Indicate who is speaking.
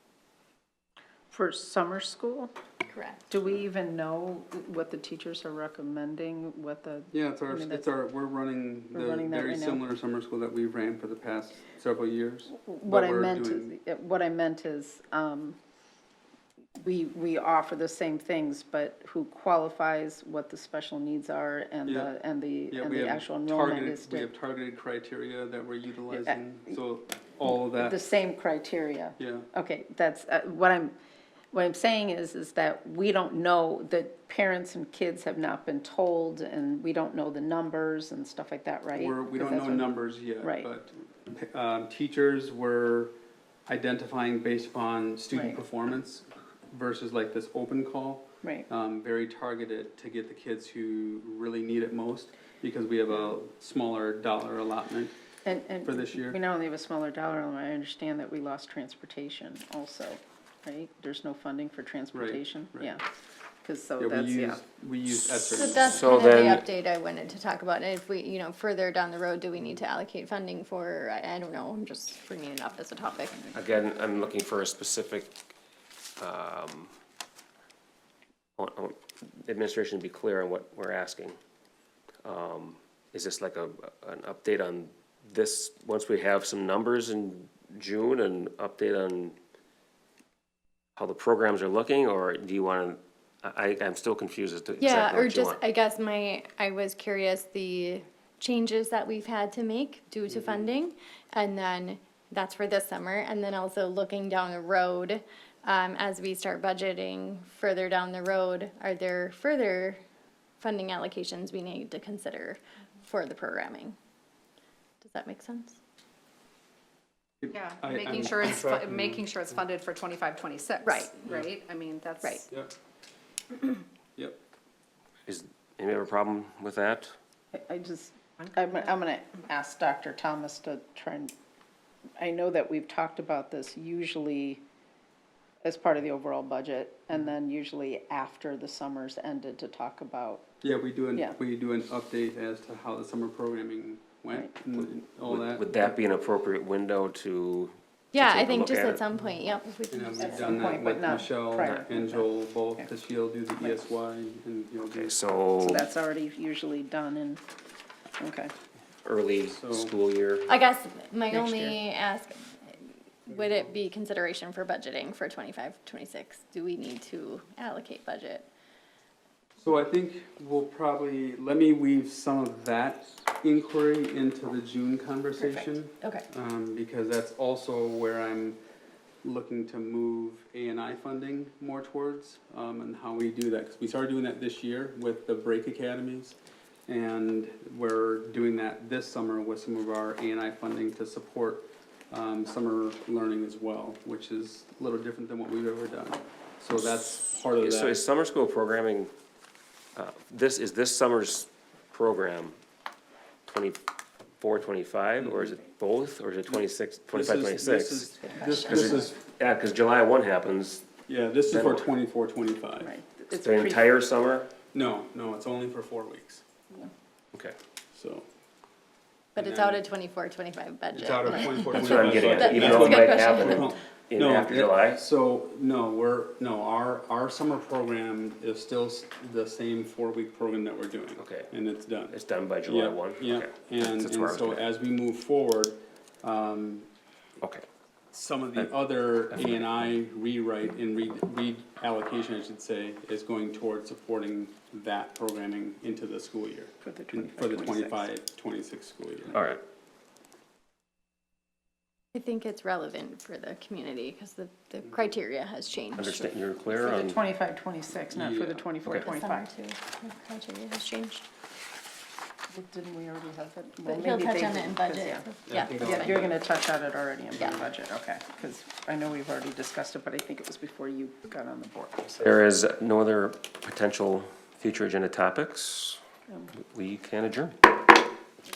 Speaker 1: for summer school?
Speaker 2: Correct.
Speaker 1: Do we even know what the teachers are recommending, what the?
Speaker 3: Yeah, it's
Speaker 1: I
Speaker 3: our,
Speaker 1: mean,
Speaker 3: it's
Speaker 1: that's-
Speaker 3: our, we're running
Speaker 1: We're
Speaker 3: the
Speaker 1: running that
Speaker 3: very
Speaker 1: right now.
Speaker 3: similar summer school that we've ran for the past several years.
Speaker 1: What
Speaker 3: but
Speaker 1: I
Speaker 3: we're
Speaker 1: meant is,
Speaker 3: doing-
Speaker 1: what I meant is, um, we, we offer the same things, but who qualifies, what the special needs are and
Speaker 3: Yeah.
Speaker 1: the, and the,
Speaker 3: Yeah,
Speaker 1: and
Speaker 3: we
Speaker 1: the
Speaker 3: have
Speaker 1: actual enrollment
Speaker 3: targeted-
Speaker 1: is
Speaker 3: We
Speaker 1: di-
Speaker 3: have targeted criteria that we're utilizing, so all of
Speaker 1: the
Speaker 3: that,
Speaker 1: same criteria.
Speaker 3: yeah.
Speaker 1: Okay, that's, uh, what I'm, what I'm saying is, is that we don't know, that parents and kids have not been told, and we don't know the numbers and stuff like that, right?
Speaker 3: We're, we
Speaker 1: Because
Speaker 3: don't
Speaker 1: that's
Speaker 3: know
Speaker 1: what-
Speaker 3: numbers yet,
Speaker 1: Right.
Speaker 3: but, um, teachers were identifying based upon
Speaker 1: Right.
Speaker 3: student performance versus like this open call.
Speaker 1: Right,
Speaker 3: um, very targeted to get the kids who really need it most because we have a smaller dollar allotment.
Speaker 1: and, and.
Speaker 3: For this year.
Speaker 1: We not only have a smaller dollar amount, I understand that we lost transportation also, right? There's no funding for transportation,
Speaker 3: right.
Speaker 1: yeah, because so
Speaker 3: Yeah, we
Speaker 1: that's, yeah.
Speaker 3: use, we use
Speaker 2: So
Speaker 3: ESSER.
Speaker 2: that's
Speaker 4: So
Speaker 2: kind of
Speaker 4: then-
Speaker 2: the update I wanted to talk about, and if we, you know, further down the road, do we need to allocate funding for, I, I don't know, I'm just bringing it up as a topic.
Speaker 4: Again, I'm looking for a specific, um, I want- I want administration to be clear on what we're asking. Um, Is this like a, an update on this, once we have some numbers in June, an update on how the programs are looking, or do you want to, I, I'm still confused as to
Speaker 2: Yeah,
Speaker 4: exactly
Speaker 2: or
Speaker 4: what you
Speaker 2: just,
Speaker 4: want.
Speaker 2: I guess my, I was curious, the changes that we've had to make due
Speaker 4: Mm-hmm.
Speaker 2: to funding, and then that's for this summer, and then also looking down the road, um, as we start budgeting further down the road, are there further funding allocations we need to consider for the programming? Does that make sense?
Speaker 5: Yeah,
Speaker 3: I- I'm
Speaker 5: making sure it's, fu-
Speaker 3: tracking-
Speaker 5: making sure it's funded for twenty-five, twenty-six.
Speaker 2: Right.
Speaker 5: Right, I mean, that's.
Speaker 2: Right.
Speaker 3: Yep. Yep.
Speaker 4: Is, anybody have a problem with that?
Speaker 1: I- I just, I'm, I'm gonna ask Dr. Thomas to try and, I know that we've talked about this usually as part of the overall budget,
Speaker 3: Mm-hmm.
Speaker 1: and then usually after the summer's ended to talk about,
Speaker 3: Yeah, we do an,
Speaker 1: Yeah.
Speaker 3: we do an update as to how the summer programming went and all
Speaker 4: Would-
Speaker 3: that.
Speaker 4: Would that be an appropriate window to? to
Speaker 2: Yeah,
Speaker 4: take
Speaker 2: I
Speaker 4: a
Speaker 2: think
Speaker 4: look
Speaker 2: just
Speaker 4: at
Speaker 2: at
Speaker 4: it?
Speaker 2: some point, yep, if we can
Speaker 3: And
Speaker 2: just-
Speaker 3: we've
Speaker 1: some
Speaker 3: done that
Speaker 1: point, but
Speaker 3: with
Speaker 1: not
Speaker 3: Michelle
Speaker 1: prior.
Speaker 3: and Joel both,
Speaker 1: Okay.
Speaker 3: because she'll do the ESY and you'll do.
Speaker 4: Okay, so
Speaker 1: so that's already usually done and, okay.
Speaker 4: early
Speaker 3: So-
Speaker 4: school year.
Speaker 2: I guess my
Speaker 1: Next
Speaker 2: only ask, would it be consideration for budgeting for 25, 26? Do we need to allocate budget?
Speaker 3: So I think we'll probably, let me weave some of that inquiry into the June conversation.
Speaker 2: Okay.
Speaker 3: um, because that's also where I'm looking to move A and I funding more towards, um, and how we do that, 'Cause we started doing that this year with the break academies. And we're doing that this summer with some of our A and I funding to support, um, summer learning as well, which is a little different than what we've ever done. So that's part of
Speaker 4: So
Speaker 3: that.
Speaker 4: is summer school programming, uh, this, is this summer's program 24, 25, or is it both, or is it 26, 25,
Speaker 3: This
Speaker 4: 26?
Speaker 3: is- this is- This, this is,
Speaker 4: Yeah, because July one happens,
Speaker 3: yeah, this is
Speaker 4: Then
Speaker 3: for
Speaker 4: what?
Speaker 3: twenty-four, twenty-five.
Speaker 1: Right. It's
Speaker 4: the
Speaker 1: pre-
Speaker 4: entire summer,
Speaker 3: No, no, it's only for four weeks,
Speaker 4: okay.
Speaker 3: so.
Speaker 2: But it's out of 24, 25 budget.
Speaker 3: It's out of
Speaker 2: right?
Speaker 3: twenty-four,
Speaker 4: That's
Speaker 3: twenty-five.
Speaker 4: what I'm getting at,
Speaker 2: That-
Speaker 4: even
Speaker 2: that's
Speaker 4: though
Speaker 2: a
Speaker 4: it
Speaker 2: good
Speaker 4: might
Speaker 2: question.
Speaker 4: happen
Speaker 3: No,
Speaker 4: in
Speaker 3: no,
Speaker 4: after
Speaker 3: yeah,
Speaker 4: July.
Speaker 3: So, no, we're, no, our, our summer program is still s- the same four-week program that we're doing.
Speaker 4: Okay.
Speaker 3: And it's done.
Speaker 4: It's done by July
Speaker 3: Yeah,
Speaker 4: one?
Speaker 3: Yeah,
Speaker 4: Okay.
Speaker 3: and,
Speaker 4: That's
Speaker 3: and
Speaker 4: where I was
Speaker 3: so
Speaker 4: going.
Speaker 3: as we move forward, um,
Speaker 4: Okay,
Speaker 3: some of the other A and I rewrite and re, reallocation, I should say, is going towards supporting that programming into the school year.
Speaker 1: For the
Speaker 3: For the
Speaker 1: 25, 26.
Speaker 3: twenty-five, twenty-six school year.
Speaker 4: all right.
Speaker 2: I think it's relevant for the community because the, the criteria has changed.
Speaker 4: Understand, you're
Speaker 1: For
Speaker 4: clear
Speaker 1: the
Speaker 4: on?
Speaker 1: twenty-five, twenty-six, not for the
Speaker 3: Yeah.
Speaker 1: twenty-four,
Speaker 2: The summer
Speaker 1: twenty-five.
Speaker 2: too, the criteria has changed.
Speaker 1: Didn't we already have that? Well,
Speaker 2: But he'll
Speaker 1: maybe
Speaker 2: touch
Speaker 1: they
Speaker 2: on it in
Speaker 1: didn't, 'cause,
Speaker 2: budget.
Speaker 1: yeah.
Speaker 2: Yeah,
Speaker 3: think
Speaker 2: that's
Speaker 1: Yeah,
Speaker 2: fine.
Speaker 1: you're gonna touch on it already in the
Speaker 2: Yeah.
Speaker 1: budget, okay, because I know we've already discussed it, but I think it was before you got on the board, so.
Speaker 4: There is no other potential future agenda topics. We can adjourn.